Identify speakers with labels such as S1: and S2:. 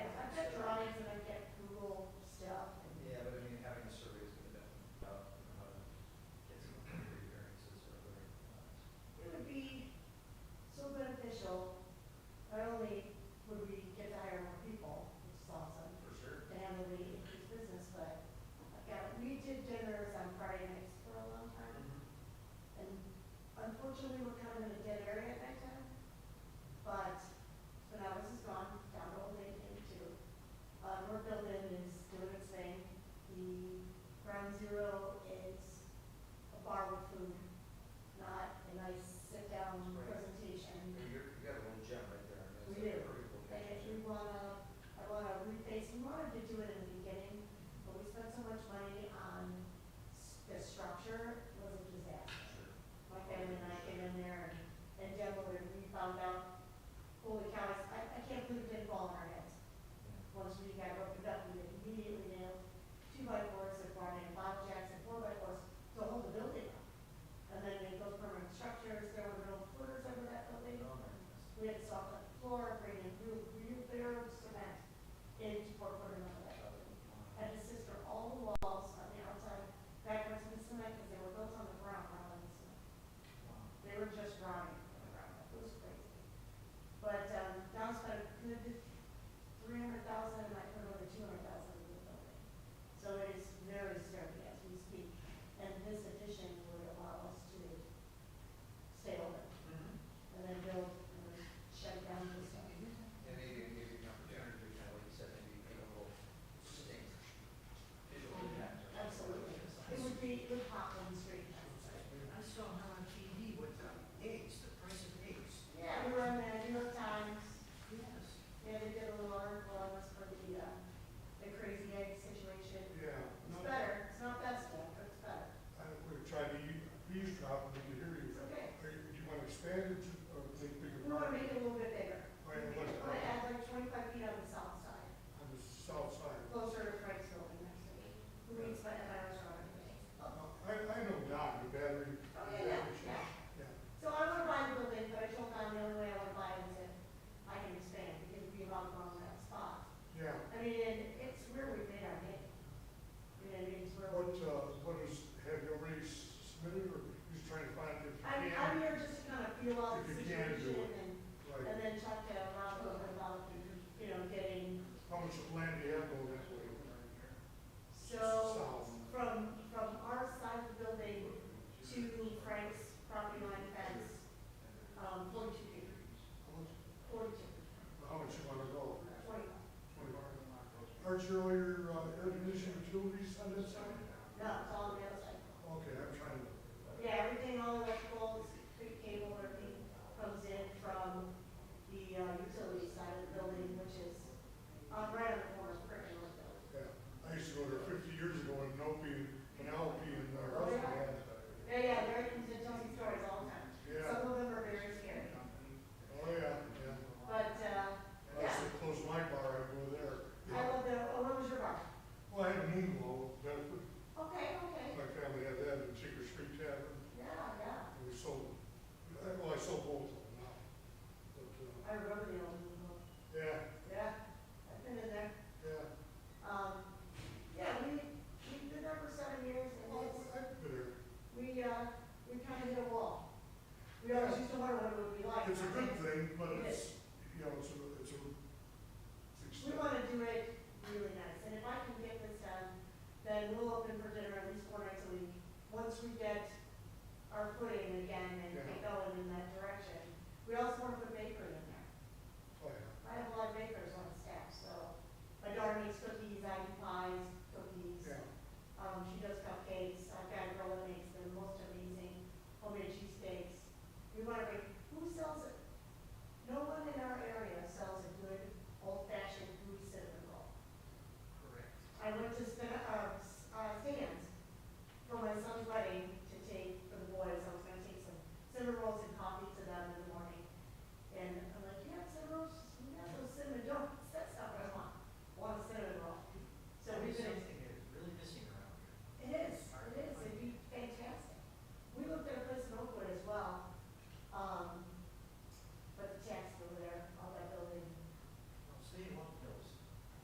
S1: uh,
S2: Mm-hmm. children were kind of in a dead area at that time. But, but ours is gone, down to old age age two. Uh, North Building is doing its thing. The Ground Zero is a bar with food, not a nice sit-down
S1: Right.
S2: presentation.
S1: You're, you got a little gem right there. and it's
S2: We
S1: a
S2: do.
S1: pretty cool
S2: And if we
S1: picture.
S2: wanna, I wanna reface, we wanted to do it in the beginning, but we spent so much money on s- the structure, it was a disaster.
S1: Sure.
S2: My family and I came in there and generally we found out, holy cow, it's- I, I can't believe it didn't fall on our heads. Once we got opened up, we immediately nailed two by fours and brought in bottle jacks and four by fours to hold the building up. And then they built permanent structures, there were no quarters over that building.
S1: Oh, my goodness.
S2: We had salt on the floor, bringing real, real bare cement into Fort Porter, Minnesota. Had to sister all the walls on the outside backwards in cement because they were built on the ground rather than cement.
S1: Wow.
S2: They were just rotting on the ground. It was crazy. But um, Don spent a good three hundred thousand and I put over two hundred thousand in the building. So it is very sturdy as we speak. And this addition would allow us to stay open and then build and shut down this stuff.
S1: And maybe, maybe an opportunity, you know, like you said, maybe make a little distinct visual impact. or something.
S2: Absolutely. It would be, it would pop on the street.
S3: I saw her on TV with the eggs, the price of eggs.
S2: Yeah, we were in the New York Times,
S3: Yes.
S2: yeah, they did a little article on us for the, uh, the crazy egg situation.
S4: Yeah,
S2: It's
S4: no, I,
S2: better, it's not best yet, but it's better.
S4: we tried to, u- we used to have, we could hear you.
S2: It's okay.
S4: Are you- Do you want to expand it to, or take bigger?
S2: We wanna make
S4: property
S2: it a little bit bigger.
S4: Oh, yeah,
S2: We
S4: what's
S2: wanna add like twenty-five feet on the south side,
S4: On the south side.
S2: closer to Frank's building next to me, who needs my, my restaurant today.
S4: Now, I, I know Don, the battery.
S2: Oh, yeah, yeah, yeah. So I wanna buy the building, but I told Don the only way I wanna buy it is if I can expand, because we love on that spot.
S4: Yeah,
S2: I mean, and it's where we made our name. You know, what I mean, it's where
S4: what,
S2: we,
S4: uh, what is, have you already submitted, or just trying to find it?
S2: I'm, I'm here just to kind of feel out the
S4: If you can do it.
S2: situation and, and
S4: Like,
S2: then talk to Rob a little bit about, you know, getting,
S4: how much of land do you have going that way?
S2: so,
S4: South.
S2: from, from our side of the building to Frank's property line fence, um, forty-two feet,
S4: How much,
S2: forty-two,
S4: how much you want to go?
S2: twenty-five.
S4: Twenty-five. Aren't you all your, uh, air conditioning utilities on that side?
S2: No, it's all on the other side.
S4: Okay, I'm trying to.
S2: Yeah, everything, all electrical, street cable, everything comes in from the uh, utility side of the building, which is um, right on the corner of Brick and North Building.
S4: Yeah, I used to go there fifty years ago in Nopi, Penelope and uh, Russell had.
S2: Yeah, yeah, they're, they tell me stories all the time.
S4: Yeah,
S2: Some of them are very scary,
S4: oh yeah, yeah.
S2: but, uh,
S4: I used to close my bar, I'd go there.
S2: I love the, oh, what was your bar?
S4: Well, I had a moon glow, that,
S2: Okay, okay,
S4: my family had that in Chicker Street Tavern,
S2: yeah, yeah,
S4: and we sold, I- well, I sold both of them now. But,
S2: I remember the old one,
S4: uh, yeah,
S2: yeah, I've been in there.
S4: yeah.
S2: Um, yeah, we, we've been there for seven years and
S4: Well,
S2: it's.
S4: I- I've been there.
S2: we, uh, we kind of hit a wall. We always used to wonder what it would be like.
S4: It's a good thing, but it's, you know, it's a, it's a. it's
S2: We
S4: expensive.
S2: want to do it really nice, and if I can get this done, then we'll open for dinner at least four nights a week. Once we get Um, um, uh, um,